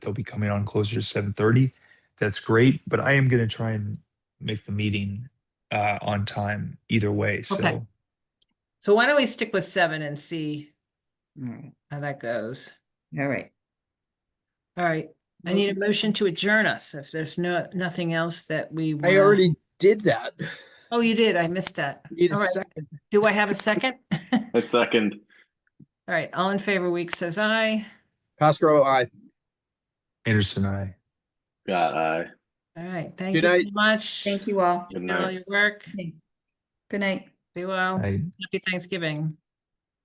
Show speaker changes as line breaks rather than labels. they'll be coming on closer to seven thirty. That's great, but I am gonna try and make the meeting uh on time either way,
Okay.
so.
So why don't we stick with seven and see
Alright,
how that goes?
alright.
All right, I need a motion to adjourn us if there's no, nothing else that we.
I
wanna-
already did that.
Oh, you did. I missed that.
Need a
All right.
second.
Do I have a second? All
A second.
right, all in favor, Weeks says aye.
Pascal, I.
Anderson, I.
God, I.
All right, thank you
Good
so
night.
much.
Thank you all.
Good
For all
night.
your work.
Good night.
Be well.
I
Happy Thanksgiving.